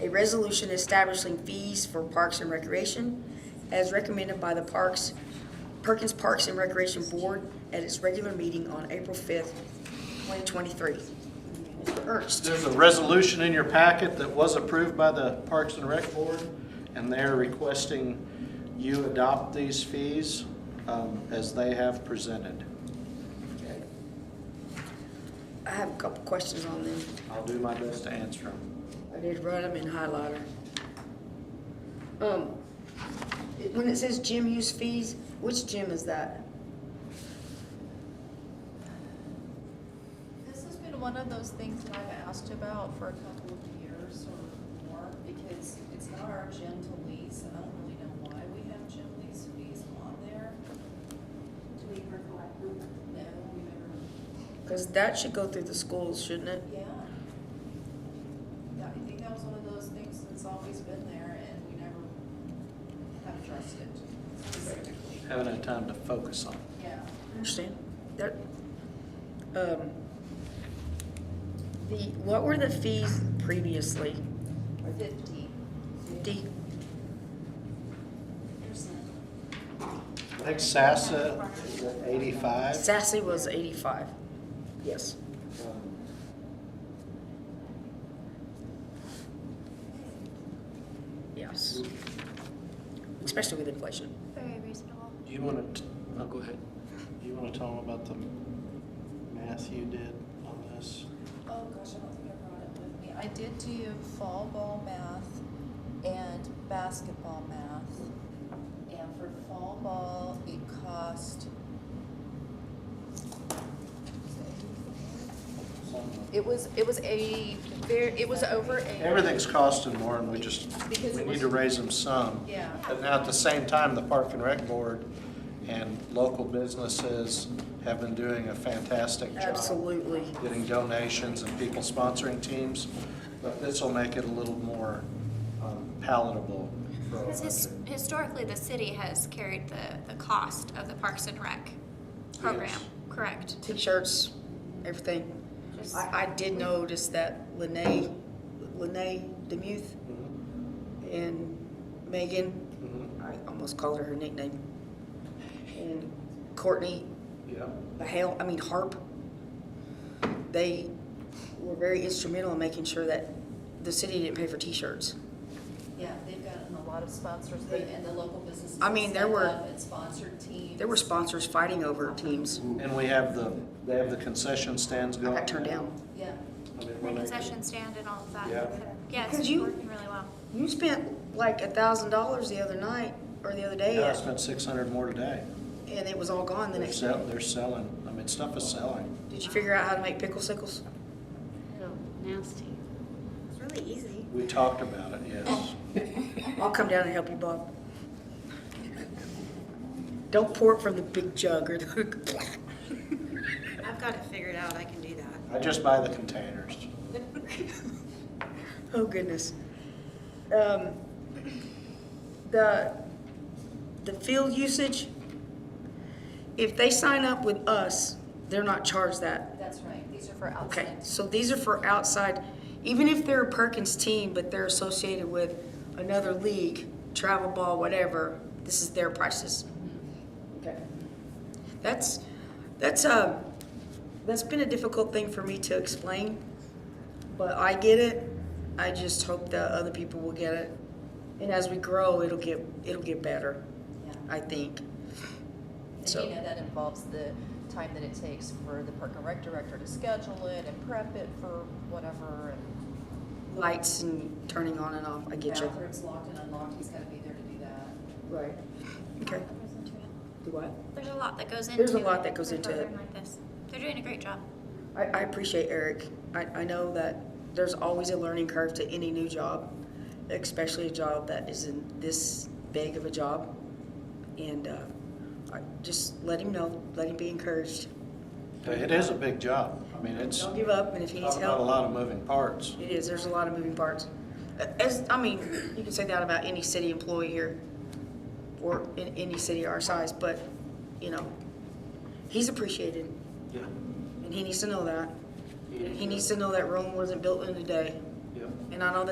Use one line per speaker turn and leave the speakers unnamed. a resolution establishing fees for parks and recreation as recommended by the Parks, Perkins Parks and Recreation Board at its regular meeting on April 5th, 2023. Mr. Ernst,
There's a resolution in your packet that was approved by the Parks and Rec Board, and they're requesting you adopt these fees um, as they have presented.
I have a couple questions on them.
I'll do my best to answer them.
I did write them in highlighter. Um, it- when it says gym use fees, which gym is that?
This has been one of those things that I've asked about for a couple of years or more, because it's not our gym to lease, and I don't really know why we have gym lease fees on there. Do we ever collect them? No, we never,
Because that should go through the schools, shouldn't it?
yeah. Yeah, I think that was one of those things that's always been there, and we never have addressed it specifically,
Haven't had time to focus on it.
yeah.
I Understand? That, um, the, what were the fees previously?
Fifty
D,
percent.
I think SASSA is at 85.
Sassy was eighty-five. Yes.
Um,
Yes. Especially with inflation.
Very reasonable.
You want to, oh, go ahead. You want to tell them about the math you did on this?
Oh gosh, I don't think I brought it with me. I did do fall ball math and basketball math. And for fall ball, it cost. It was, it was a very, it was over a.
Everything's costing more, and we just,
Because
we need
it was-
to raise them some.
Yeah.
But now, at the same time, the Park and Rec Board and local businesses have been doing a fantastic job.
Absolutely.
Getting donations and people sponsoring teams, but this will make it a little more um, palatable. for our
Because his,
budget.
historically, the city has carried the, the cost of the Parks and Rec program,
Yes.
correct?
T-shirts, everything. I, I did notice that Lene, Lene Demuth
Mhm,
and Megan,
mhm,
I almost called her her nickname, and Courtney
Yeah,
the hail, I mean harp. They were very instrumental in making sure that the city didn't pay for T-shirts.
Yeah, they've gotten a lot of sponsors but- and the local businesses.
I mean, there
stepped
were-
up And sponsored teams.
There were sponsors fighting over teams.
and we have the, they have the concession stands
I
going.
got turned down.
Yeah.
I mean,
The
we're making-
concession stand and all of that.
Yeah.
Yeah, it's
Could you-
working really well.
You spent like a thousand dollars the other night or the other day,
Yeah, I spent six hundred more today.
and it was all gone the
They're
next day.
sell, they're selling, I mean, stuff is selling.
Did you figure out how to make pickle sickles?
Oh, nasty. It's really easy.
We talked about it, yes.
I'll come down and help you, Bob. Don't pour it from the big jug or the.
I've got it figured out. I can do that.
I just buy the containers.
Oh goodness. Um, the, the field usage, if they sign up with us, they're not charged that.
That's right. These are for
Okay,
outside.
so these are for outside, even if they're a Perkins team, but they're associated with another league, travel ball, whatever, this is their prices. Okay. That's, that's, um, that's been a difficult thing for me to explain, but I get it. I just hope that other people will get it. And as we grow, it'll get, it'll get better,
Yeah.
I think.
And
So-
you know, that involves the time that it takes for the park and rec director to schedule it and prep it for whatever. and
Lights and turning on and off, I get you.
Bathrooms locked and unlocked, he's gotta be there to do that.
Right. Okay.
Goes into it.
Do what?
There's a lot that goes into.
There's a lot
it
that goes
for a
into it.
program like this. They're doing a great job.
I, I appreciate Eric. I, I know that there's always a learning curve to any new job, especially a job that isn't this big of a job. And uh, I, just let him know, let him be encouraged.
It is a big job. I mean, it's,
Don't
talk
give up, and if he needs
about a
help,
lot of moving parts.
it is. There's a lot of moving parts. As I mean, you can say that about any city employee here, or in any city our size. But you know, he's appreciated,
Yeah,
and he needs to know that. He needs to know that Rome wasn't built in a day.
yeah.
And I know that.